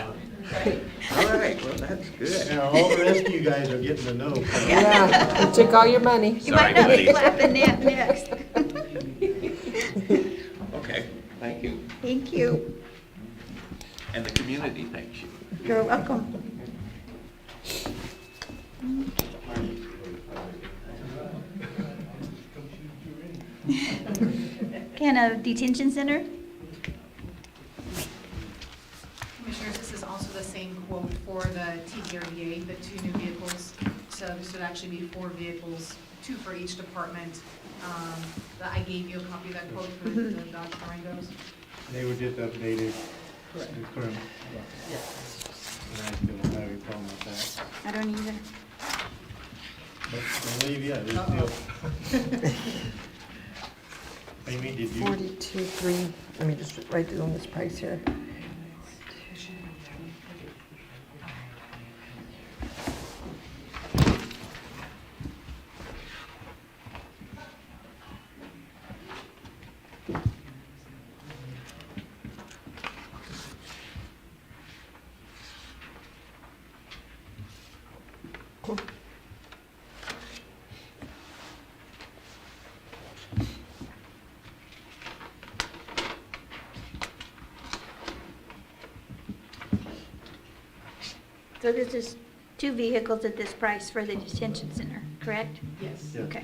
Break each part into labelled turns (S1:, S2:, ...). S1: All right, well, that's good.
S2: Now, all the rest of you guys are getting to know.
S3: Yeah, it took all your money.
S4: You
S1: Sorry,
S4: might not be
S1: buddy.
S4: clapping that next.
S1: Okay, thank you.
S4: Thank you.
S1: And the community thanks you.
S4: You're welcome. Can a detention center?
S5: Commissioners, this is also the same quote for the TDRVA, the two new vehicles. So this would actually be four vehicles, two for each department. Um, the- I gave you a copy of that quote for the the Dodge Durangos.
S2: They were just updated. The current. And I still don't have a problem with that.
S4: I don't either.
S2: But I believe, yeah, there's still. Amy, did you,
S3: Forty-two, three, let me just write down this price here.
S4: So this is two vehicles at this price for the detention center, correct?
S5: Yes.
S2: Yeah.
S4: Okay.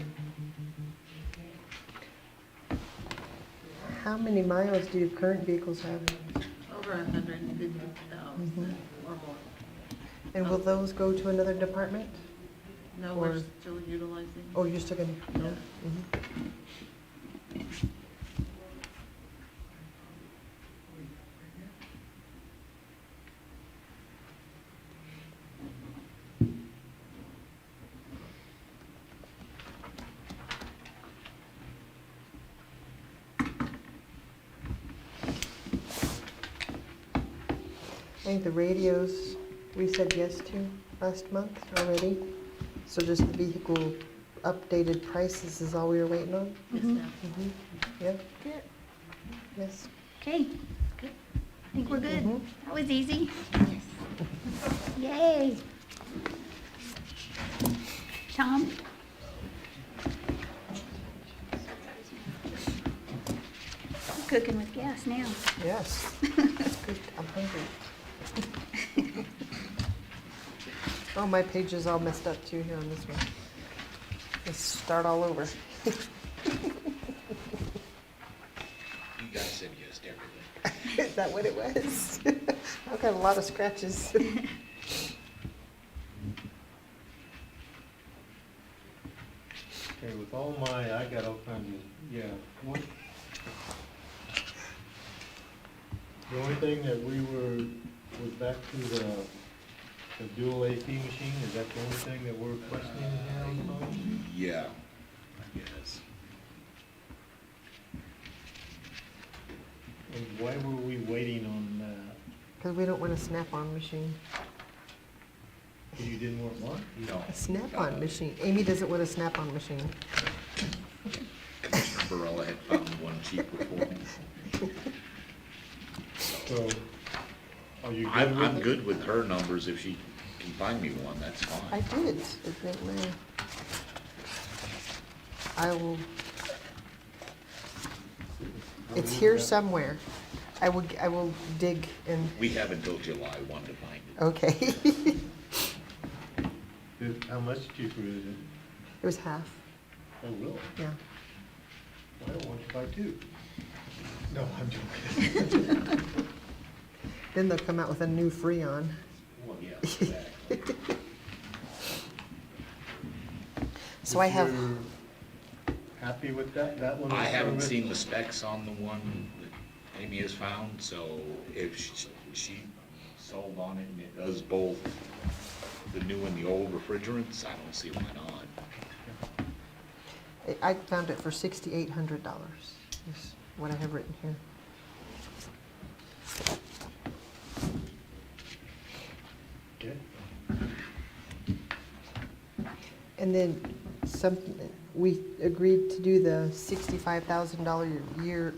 S3: How many miles do your current vehicles have?
S6: Over a hundred and fifty thousand or more.
S3: And will those go to another department?
S6: No, we're
S3: Or-
S6: still utilizing.
S3: Oh, you're still gonna?
S6: Yeah.
S3: Mhm. I think the radios, we said yes to last month already. So just the vehicle updated prices is all we were waiting on?
S6: Yes, ma'am.
S3: Mm-hmm. Yeah,
S4: Good.
S3: yes.
S4: Okay. I think we're good.
S3: Mhm.
S4: That was easy. Yay. Tom? I'm Cooking with gas now.
S3: Yes. Good, I'm hungry. Oh, my page is all messed up too here on this one. Let's start all over.
S1: You guys said yes to everything.
S3: Is that what it was? I've got a lot of scratches.
S2: okay, with all my, I got all kinds of, yeah. what- The only thing that we were, was back to the, the dual AP machine, is that the only thing that we're questioning now? Tony?
S1: Yeah, I guess.
S2: And why were we waiting on, uh,
S3: Because we don't want a snap-on machine.
S2: you didn't want one?
S1: No. Uh,
S3: A
S1: Uh-huh.
S3: snap-on machine. Amy doesn't want a snap-on machine.
S1: Commissioner Barella had found one cheaper for me.
S2: So, are you good
S1: I'm,
S2: with
S1: I'm
S2: it?
S1: good with her numbers. If she can find me one, that's
S3: I
S1: fine.
S3: did. I think my- I will, it's here somewhere. I will, I will dig and,
S1: We have until July one to find
S3: Oh.
S1: it.
S3: okay.
S2: Is- How much cheaper is it?
S3: It was half,
S2: Oh, really?
S3: yeah.
S2: Why don't you buy two? No, I'm joking.
S3: Then they'll come out with a new Freon.
S1: Well, yeah, exactly.
S3: So I have,
S2: If you're Happy with that, that one?
S1: I
S2: is
S1: haven't
S2: covered?
S1: seen the specs on the one that Amy has found, so if she- she sold on it and it does both the new and the old refrigerants, I don't see why not.
S3: I found it for sixty-eight hundred dollars, is what I have written here.
S2: Okay.
S3: And then some, we agreed to do the sixty-five thousand dollar year